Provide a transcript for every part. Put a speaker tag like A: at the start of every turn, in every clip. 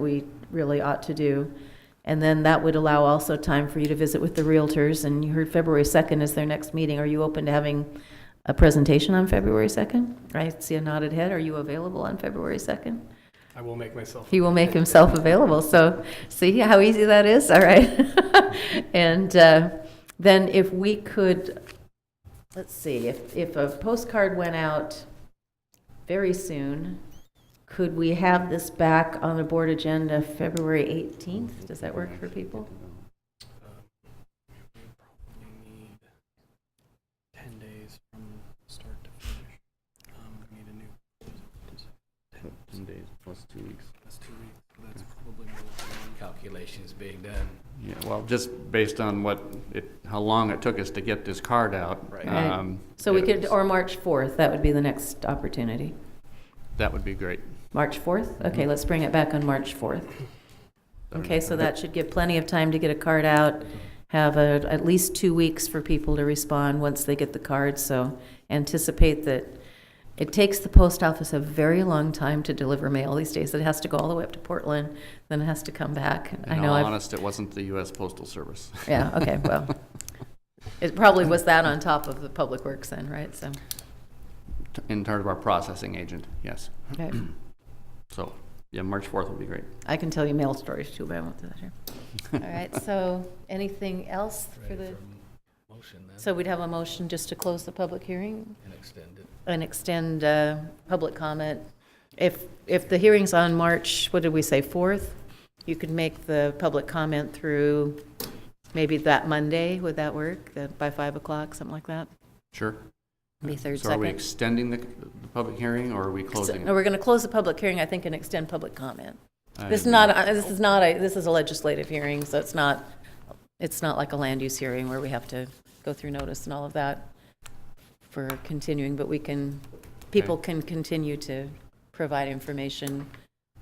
A: we really ought to do. And then that would allow also time for you to visit with the Realtors, and you heard February 2nd is their next meeting. Are you open to having a presentation on February 2nd? I see a nodded head. Are you available on February 2nd?
B: I will make myself.
A: He will make himself available. So, see how easy that is? All right. and uh, then if we could, let's see, if, if a postcard went out very soon, could we have this back on the board agenda February 18th? Does that work for people?
B: You need Ten days from start to finish. Um, we need a new.
C: Ten days plus two weeks.
B: That's two weeks. so That's probably more than- calculations being done.
C: Yeah, well, just based on what it, how long it took us to get this card out.
B: Right.
A: Right.
C: um,
A: So we
C: yeah,
A: could, or March 4th, that would be the next opportunity.
C: That would be great.
A: March 4th? Okay, let's bring it back on March 4th. Okay, so that should give plenty of time to get a card out, have a- at least two weeks for people to respond once they get the card, so anticipate that it takes the post office a very long time to deliver mail these days. It has to go all the way up to Portland, then it has to come back. I
C: In
A: know,
C: all
A: I've-
C: honest, it wasn't the US Postal Service.
A: yeah, okay, well, it probably was that on top of the Public Works then, right, so,
C: T- In terms of our processing agent, yes.
A: okay.
C: So, yeah, March 4th would be great.
A: I can tell you mail stories too, but I won't do that here. All right, so anything else for
B: Ready
A: the,
B: for Motion then,
A: so we'd have a motion just to close the public hearing
B: and extend it.
A: and extend uh, public comment. If, if the hearing's on March, what did we say, 4th? You could make the public comment through maybe that Monday, would that work? That By 5 o'clock, something like that?
C: Sure.
A: Be third,
C: So are we
A: second?
C: extending the, the public hearing or are we closing
A: No,
C: it?
A: we're going to close the public hearing, I think, and extend public comment.
C: I
A: This is
C: didn't-
A: not, a- this is not, a this is a legislative hearing, so it's not, it's not like a land use hearing where we have to go through notice and all of that for continuing, but we can, people can continue to provide information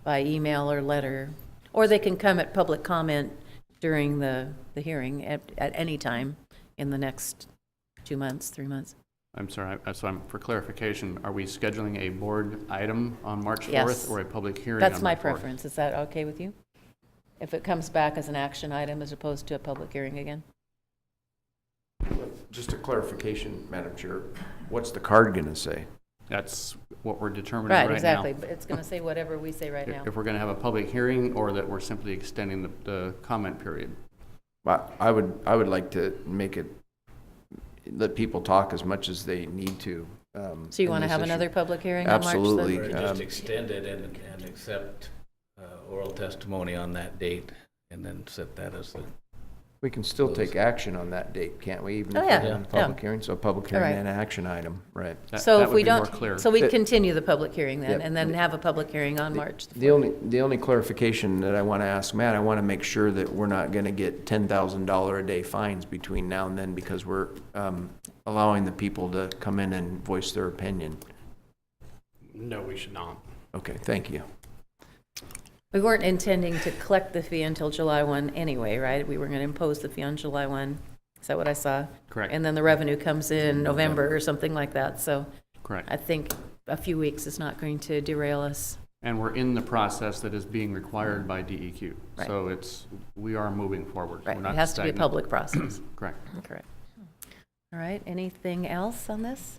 A: by email or letter, or they can come at public comment during the, the hearing at, at any time in the next two months, three months.
C: I'm sorry, I- so I'm, for clarification, are we scheduling a board item on March 4th?
A: Yes.
C: Or a public hearing on
A: That's my
C: March 4th?
A: preference. Is that okay with you? If it comes back as an action item as opposed to a public hearing again?
D: Just a clarification, Madam Chair, what's the card going to say?
C: That's what we're determining right now.
A: Right, exactly, but it's going to say whatever we say right now.
C: If we're going to have a public hearing or that we're simply extending the, the comment period.
D: I I would, I would like to make it, let people talk as much as they need to. um,
A: So you
D: in
A: want to
D: this
A: have
D: issue.
A: another public hearing on March 3rd?
D: Absolutely.
B: Or
D: Like,
B: just
D: um,
B: extend it and, and accept uh, oral testimony on that date, and then set that as the,
D: We can still take action on that date, can't we? even if
A: Oh,
D: we're
A: yeah,
D: having a
A: yeah.
D: Public hearing, so a public
A: All
D: hearing
A: right.
D: and an action item, right.
C: That-
A: So
C: that
A: if
C: would
A: we
C: be more
A: don't,
C: clear.
A: so we'd
D: The-
A: continue the public hearing then,
D: Yeah.
A: and then have a public hearing on March. the
D: The only, the only clarification that I want to ask, Matt, I want to make sure that we're not going to get $10,000 a day fines between now and then because we're um, allowing the people to come in and voice their opinion.
B: no, we should not.
D: Okay, thank you.
A: We weren't intending to collect the fee until July 1 anyway, right? We were going to impose the fee on July 1. Is that what I saw?
C: Correct.
A: And then the revenue comes in November or something like that. So
C: Correct.
A: I think a few weeks is not going to derail us.
C: And we're in the process that is being required by DEQ.
A: Right.
C: So it's, we are moving forward.
A: Right,
C: We're
A: it
C: not
A: has to be a
C: stagnant.
A: public process.
C: Correct.
A: Correct. All right, anything else on this?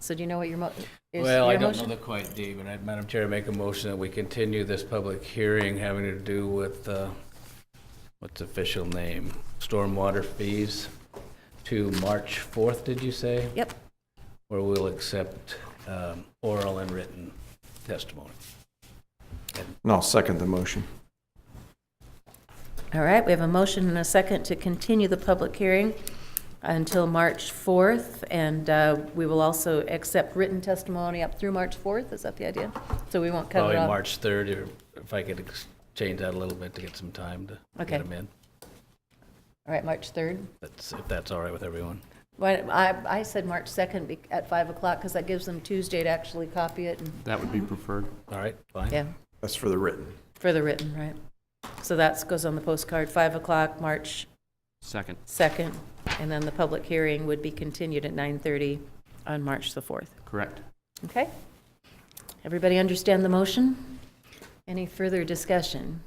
A: So do you know what your mo, is your motion?
B: Well, I don't know the quite, Dave, and I, Madam Chair, I make a motion that we continue this public hearing having to do with, uh, what's the official name? Stormwater fees to March 4th, did you say?
A: Yep,
B: Where we'll accept um, oral and written testimony.
D: And I'll second the motion.
A: all right, we have a motion and a second to continue the public hearing until March 4th, and uh, we will also accept written testimony up through March 4th, is that the idea? So we won't cut
B: Probably
A: it off?
B: March 3rd, or if I could ex- change that a little bit to get some time to
A: Okay.
B: get them in.
A: All right, March 3rd.
B: That's, if that's all right with everyone.
A: Why- I, I said March 2nd be- at 5 o'clock, because that gives them Tuesday to actually copy it, and,
C: That would be preferred.
B: All right, fine?
A: yeah.
D: That's for the written.
A: For the written, right. So that goes on the postcard, 5 o'clock, March
C: Second.
A: 2nd, and then the public hearing would be continued at 9:30 on March the 4th.
C: Correct.
A: Okay? Everybody understand the motion? Any further discussion?